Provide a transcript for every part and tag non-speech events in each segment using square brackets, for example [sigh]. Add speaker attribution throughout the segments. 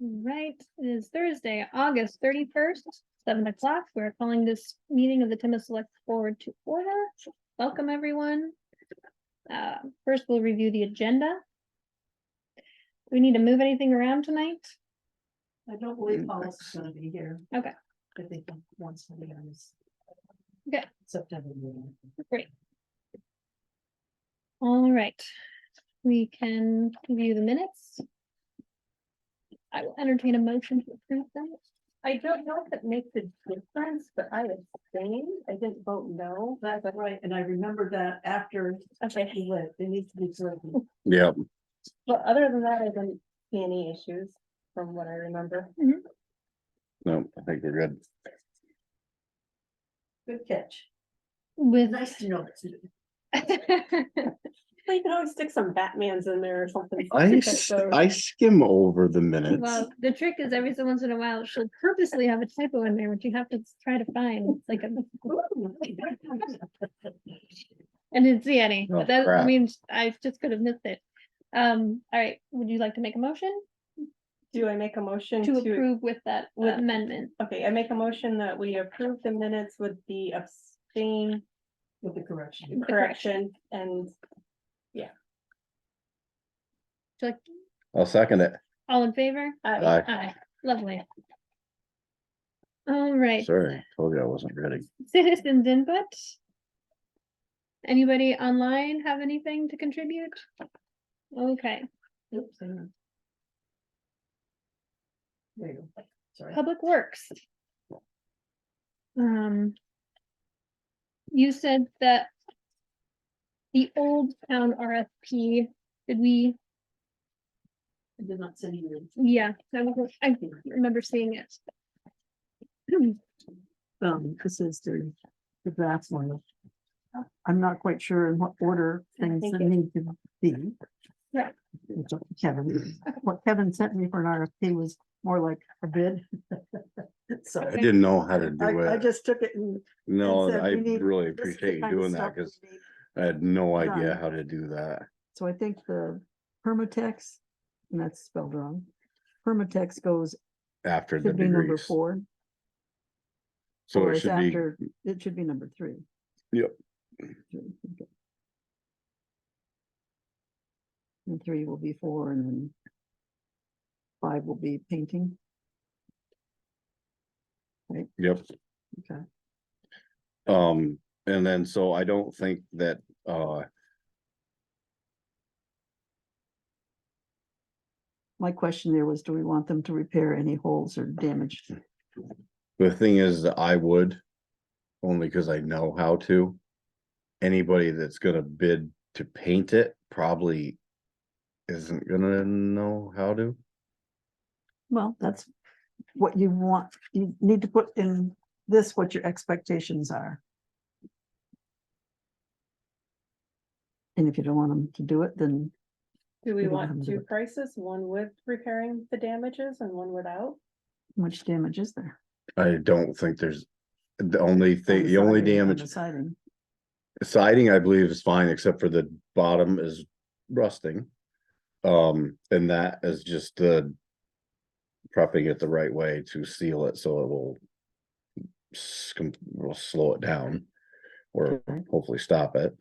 Speaker 1: Right, it is Thursday, August thirty-first, seven o'clock. We're calling this meeting of the Timmins Select Board to order. Welcome, everyone. Uh, first, we'll review the agenda. Do We need to move anything around tonight?
Speaker 2: I don't believe Paul's gonna be here.
Speaker 1: Okay.
Speaker 2: I think once he is.
Speaker 1: Okay.
Speaker 2: September. meeting.
Speaker 1: All right, we can review the minutes. I will entertain a motion to approve them.
Speaker 3: I don't know if it makes a difference, but I abstained. I didn't vote no.
Speaker 2: That's right, and I remember that after
Speaker 3: Okay.
Speaker 2: he left, they need to be certain.
Speaker 4: Yeah,
Speaker 3: But other than that, I didn't see any issues from what I remember.
Speaker 4: no, I think we're good.
Speaker 2: Good catch.
Speaker 1: With,
Speaker 2: Nice to know. that too. [laughs]
Speaker 3: Well, You can always stick some Batmans in there or something.
Speaker 4: I,
Speaker 3: That's
Speaker 4: s-
Speaker 3: so-
Speaker 4: I skim over the
Speaker 1: [laughs]
Speaker 4: minutes.
Speaker 1: well, the trick is every so once in a while, she'll purposely have a typo in there, which you have to try to find, It's like a I didn't see any,
Speaker 4: Oh,
Speaker 1: but that
Speaker 4: crap.
Speaker 1: means I just could have missed it. Um, all right, would you like to make a motion
Speaker 3: Do I make a motion
Speaker 1: to
Speaker 3: to,
Speaker 1: approve with that
Speaker 3: with-
Speaker 1: amendment?
Speaker 3: okay, I make a motion that we approve the minutes with the abstain
Speaker 2: With the correction.
Speaker 3: correction and
Speaker 1: So, like,
Speaker 4: I'll second it.
Speaker 1: all in favor?
Speaker 3: uh,
Speaker 4: Aye.
Speaker 1: Aye, lovely. All right,
Speaker 4: Sorry, told you I wasn't ready.
Speaker 1: citizens input. Anybody online have anything to contribute? Okay,
Speaker 2: Oops, hang on. There you go. Sorry.
Speaker 1: Public Works. Um. You said that. The old town RFP, did we,
Speaker 2: I did not send you. the-
Speaker 1: yeah, I wasn't- I remember seeing it.
Speaker 2: [clears throat] Um, this is the, the draft one. I'm not quite sure in what order
Speaker 3: I
Speaker 2: things
Speaker 3: think it-
Speaker 2: need to be.
Speaker 1: Yeah.
Speaker 2: It's up to Kevin, what Kevin sent me for an RFP was more like a bid. [laughs] So
Speaker 4: I didn't know how to
Speaker 2: I,
Speaker 4: do
Speaker 2: I
Speaker 4: it.
Speaker 2: just took it and.
Speaker 4: No,
Speaker 2: said
Speaker 4: I
Speaker 2: we need-
Speaker 4: really
Speaker 2: this is the
Speaker 4: appreciate you
Speaker 2: kind of
Speaker 4: doing
Speaker 2: stuff
Speaker 4: that
Speaker 2: we
Speaker 4: because
Speaker 2: need.
Speaker 4: I had no idea
Speaker 2: done.
Speaker 4: how to do that.
Speaker 2: So I think the Permatex, and that's spelled wrong. Permatex goes,
Speaker 4: After the
Speaker 2: should be number
Speaker 4: degrees,
Speaker 2: four.
Speaker 4: so
Speaker 2: or
Speaker 4: it
Speaker 2: it's
Speaker 4: should be,
Speaker 2: after- It should be number three.
Speaker 4: Yep.
Speaker 2: Three, okay. And three will be four and then five will be painting.
Speaker 4: yep.
Speaker 2: Okay.
Speaker 4: Um, and then, so I don't think that, uh,
Speaker 2: My question there was, do we want them to repair any holes or damage?
Speaker 4: The thing is, that I would, only because I know how to. Anybody that's gonna bid to paint it probably isn't gonna know how to.
Speaker 2: Well, that's what you want. You need to put in this what your expectations are. And if you don't want them to do it, then
Speaker 3: do
Speaker 2: We
Speaker 3: we
Speaker 2: don't have
Speaker 3: want
Speaker 2: to
Speaker 3: two
Speaker 2: do it.
Speaker 3: prices, one with repairing the damages and one without?
Speaker 2: much damage is there?
Speaker 4: I don't think there's, the only
Speaker 2: on
Speaker 4: thing, the only
Speaker 2: siding, on
Speaker 4: damage,
Speaker 2: the siding?
Speaker 4: siding, I believe is fine, except for the bottom is rusting. Um, and that is just the prepping it the right way to seal it, so it will s- com- will slow it down or
Speaker 2: Okay.
Speaker 4: hopefully stop it.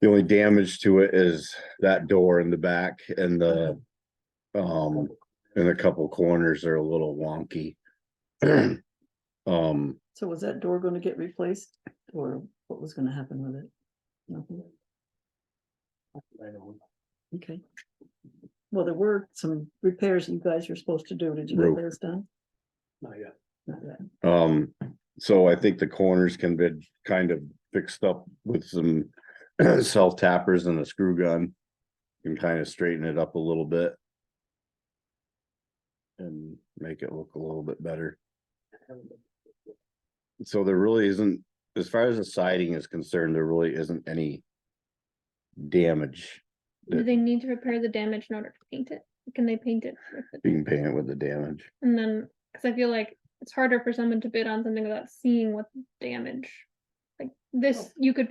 Speaker 4: The only damage to it is that door in the back and the, um, and a couple corners are a little wonky. [clears throat] Um,
Speaker 2: So was that door gonna get replaced or what was gonna happen with it? Nothing. Okay. Well, there were some repairs you guys were supposed to do. Did you
Speaker 4: Roof.
Speaker 2: get those done?
Speaker 5: Not yet.
Speaker 2: Not yet.
Speaker 4: um, so I think the corners can be kind of fixed up with some [clears throat] self tappers and a screw gun. Can kind of straighten it up a little bit. And make it look a little bit better. So there really isn't, as far as the siding is concerned, there really isn't any damage.
Speaker 1: Do they need to repair the damage in order to paint it? Can they paint it? with it?
Speaker 4: You can paint it with the damage.
Speaker 1: And then, cause I feel like it's harder for someone to bid on something without seeing what damage. Like this, you could